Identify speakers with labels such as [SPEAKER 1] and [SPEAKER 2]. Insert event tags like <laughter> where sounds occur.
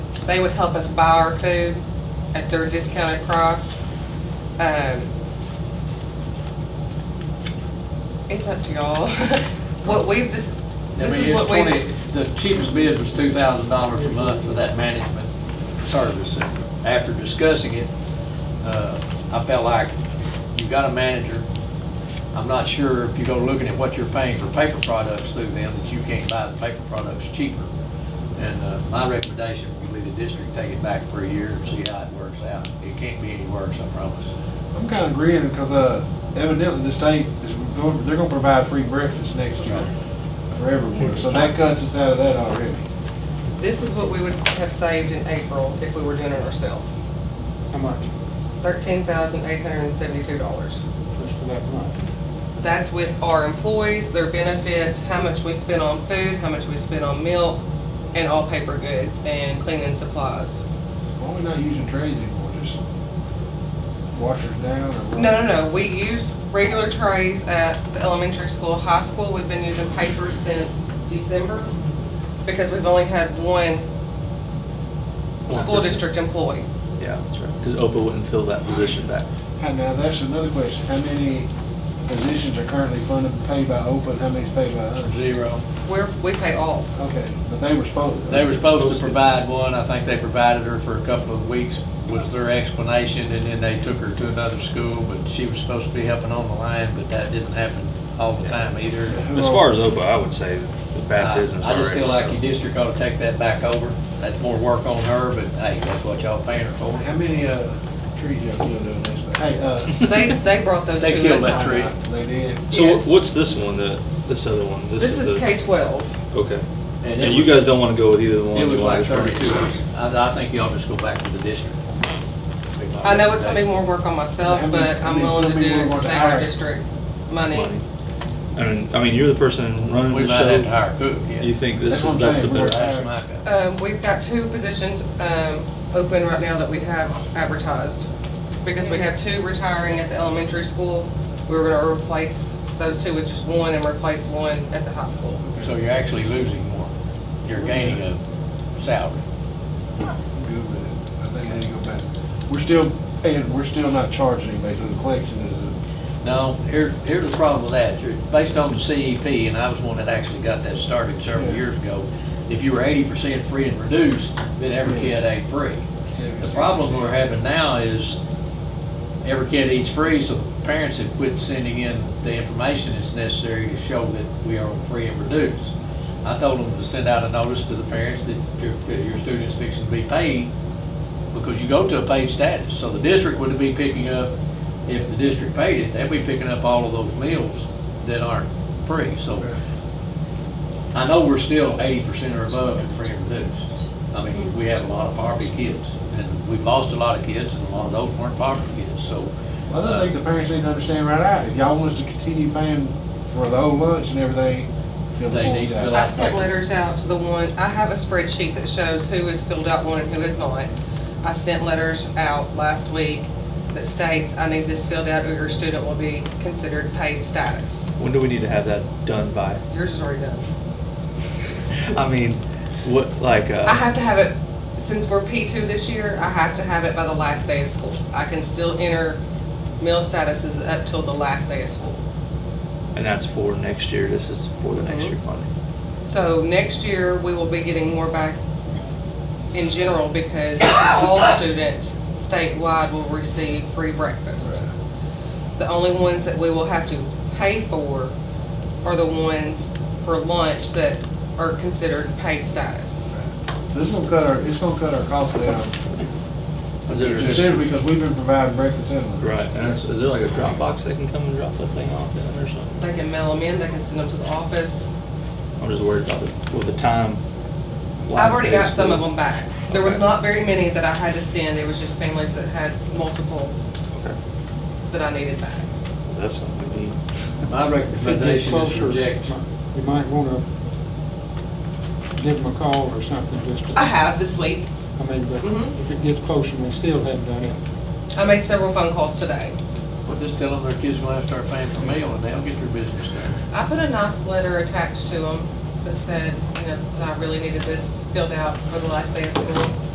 [SPEAKER 1] They would help us buy our food at their discounted price. Um, It's up to y'all. <laughs> What we've just,
[SPEAKER 2] I
[SPEAKER 1] this
[SPEAKER 2] mean,
[SPEAKER 1] is
[SPEAKER 2] it's
[SPEAKER 1] what we.
[SPEAKER 2] twenty, the cheapest bid was two thousand dollars a month for that management service. And After discussing it, uh, I felt like you've got a manager. I'm not sure if you go looking at what you're paying for paper products through them, that you can't buy the paper products cheaper. And, uh, my recommendation, we leave the district, take it back for a year and see how it works out. It can't be any worse, I promise.
[SPEAKER 3] I'm kind of agreeing because uh, evidently the state is going, they're going to provide free breakfast next year for everyone. So that cuts us out of that already.
[SPEAKER 1] This is what we would have saved in April if we were doing it ourselves.
[SPEAKER 4] How much?
[SPEAKER 1] Thirteen thousand eight hundred and seventy-two dollars.
[SPEAKER 4] Just for that month?
[SPEAKER 1] That's with our employees, their benefits, how much we spend on food, how much we spend on milk, and all paper goods and cleaning supplies.
[SPEAKER 3] Why are we not using trays anymore? Just washers down or? what?
[SPEAKER 1] No, no, no, we use regular trays at the elementary school, high school, we've been using paper since December because we've only had one school district employee.
[SPEAKER 5] Yeah, that's right. Because OPA wouldn't fill that position back.
[SPEAKER 3] Hi, now, that's another question. How many positions are currently funded, paid by OPA, and how many is paid by us?
[SPEAKER 2] Zero.
[SPEAKER 1] We're, we pay all.
[SPEAKER 3] Okay, but they were supposed.
[SPEAKER 2] They were supposed to provide one, I think they provided her for a couple of weeks, was their explanation, and then they took her to another school, but she was supposed to be helping on the line, but that didn't happen all the time either.
[SPEAKER 5] As far as OPA, I would say it's bad business
[SPEAKER 2] I
[SPEAKER 5] already.
[SPEAKER 2] just feel like
[SPEAKER 5] so-
[SPEAKER 2] your district ought to take that back over, that's more work on her, but hey, that's what y'all paying her
[SPEAKER 3] How
[SPEAKER 2] for.
[SPEAKER 3] many, uh, trees y'all killed doing this, but hey, uh.
[SPEAKER 1] They, they brought those
[SPEAKER 2] They
[SPEAKER 1] to
[SPEAKER 2] killed
[SPEAKER 1] us.
[SPEAKER 2] <laughs> that tree.
[SPEAKER 3] They did.
[SPEAKER 5] So what-
[SPEAKER 1] yes.
[SPEAKER 5] what's this one, the, this other one?
[SPEAKER 1] This is
[SPEAKER 5] the-
[SPEAKER 1] K twelve.
[SPEAKER 5] Okay.
[SPEAKER 2] it
[SPEAKER 5] And you
[SPEAKER 2] was-
[SPEAKER 5] guys don't want to go with either one?
[SPEAKER 2] It
[SPEAKER 5] you
[SPEAKER 2] was
[SPEAKER 5] wanna
[SPEAKER 2] like
[SPEAKER 5] just bring it
[SPEAKER 2] thirty-two,
[SPEAKER 5] to-
[SPEAKER 2] I, I think y'all just go back to the district.
[SPEAKER 1] I know it's gonna be more work on myself,
[SPEAKER 3] How many-
[SPEAKER 1] but
[SPEAKER 3] how
[SPEAKER 1] I'm
[SPEAKER 3] many-
[SPEAKER 1] willing to
[SPEAKER 3] how
[SPEAKER 1] do
[SPEAKER 3] many
[SPEAKER 1] it
[SPEAKER 3] more
[SPEAKER 1] to
[SPEAKER 3] to
[SPEAKER 1] save our
[SPEAKER 3] hire?
[SPEAKER 1] district money.
[SPEAKER 5] Money. I mean, I mean, you're the person running
[SPEAKER 2] We
[SPEAKER 5] the
[SPEAKER 2] might have to
[SPEAKER 5] show.
[SPEAKER 2] hire a cook, yeah.
[SPEAKER 5] You think this
[SPEAKER 3] That's what
[SPEAKER 5] is,
[SPEAKER 3] I'm
[SPEAKER 5] that's the
[SPEAKER 3] saying, we're-
[SPEAKER 5] better?
[SPEAKER 2] That's my guy.
[SPEAKER 1] Um, we've got two positions, um, open right now that we have advertised. Because we have two retiring at the elementary school, we were gonna replace those two with just one and replace one at the high school.
[SPEAKER 2] So you're actually losing more. You're gaining a salary.
[SPEAKER 3] I'm good with it. I think we need to go back. We're still paying, we're still not charging anybody, so the collection is,
[SPEAKER 2] Now, here's, here's the problem with that. You're- Based on the CEP, and I was one that actually got that started several
[SPEAKER 3] Yeah.
[SPEAKER 2] years ago, if you were eighty percent free and reduced, then every
[SPEAKER 3] Yeah.
[SPEAKER 2] kid ate free.
[SPEAKER 3] a.
[SPEAKER 2] The problem we're having now is every kid eats free, so the parents have quit sending in the information that's necessary to show that we are on free and reduced. I told them to send out a notice to the parents that your, that your student's fixing to be paid because you go to a paid status. So the district would be picking up, if the district paid it, they'd be picking up all of those meals that aren't free. So I know we're still eighty percent or above in free and reduced. I mean, we have a lot of poverty kids, and we've lost a lot of kids, and a lot of those weren't poverty kids, so.
[SPEAKER 3] Well, I think the parents need to understand right out, if y'all want us to continue paying for the whole lunch and everything, fill the
[SPEAKER 2] They
[SPEAKER 3] forms
[SPEAKER 2] need to
[SPEAKER 3] out.
[SPEAKER 2] fill
[SPEAKER 1] I
[SPEAKER 2] out-
[SPEAKER 1] sent letters out to the one, I have a spreadsheet that shows who has filled out one and who has not. I sent letters out last week that states, I need this filled out or your student will be considered paid status.
[SPEAKER 5] When do we need to have that done by?
[SPEAKER 1] Yours is already done.
[SPEAKER 5] I mean, what, like, uh?
[SPEAKER 1] I have to have it, since we're P two this year, I have to have it by the last day of school. I can still enter meal statuses up till the last day of school.
[SPEAKER 5] And that's for next year. This is for the
[SPEAKER 1] Mm-hmm.
[SPEAKER 5] next year funding.
[SPEAKER 1] So next year, we will be getting more back in general because all students statewide will receive free breakfast. The only ones that we will have to pay for are the ones for lunch that are considered paid status.
[SPEAKER 3] So this is gonna cut our, it's gonna cut our costs down
[SPEAKER 5] Is there,
[SPEAKER 3] considerably because we've been providing breakfast and lunch.
[SPEAKER 5] right, and is, is there like a drop box they can come and drop that thing off in or something?
[SPEAKER 1] They can mail them in, they can send them to the office.
[SPEAKER 5] I'm just worried about the, with the time.
[SPEAKER 1] I've
[SPEAKER 5] last
[SPEAKER 1] already
[SPEAKER 5] day
[SPEAKER 1] got some of
[SPEAKER 5] school.
[SPEAKER 1] them back. There was
[SPEAKER 5] Okay.
[SPEAKER 1] not very many that I had to send, it was just families that had multiple
[SPEAKER 5] Okay,
[SPEAKER 1] that I needed back.
[SPEAKER 5] Well, that's something we need.
[SPEAKER 2] uh, My
[SPEAKER 4] If they get
[SPEAKER 2] recommendation is
[SPEAKER 4] closer,
[SPEAKER 2] reject.
[SPEAKER 4] You might wanna give them a call or something, just to.
[SPEAKER 1] I have this week.
[SPEAKER 4] I mean, but
[SPEAKER 1] Mhm.
[SPEAKER 4] if it gets closer and they still haven't done it,
[SPEAKER 1] I made several phone calls today.
[SPEAKER 2] Well, just tell them their kids gonna have to start paying for meal, and they'll get their business done.
[SPEAKER 1] I put a nice letter attached to them that said, you know, that I really needed this filled out for the last day of school.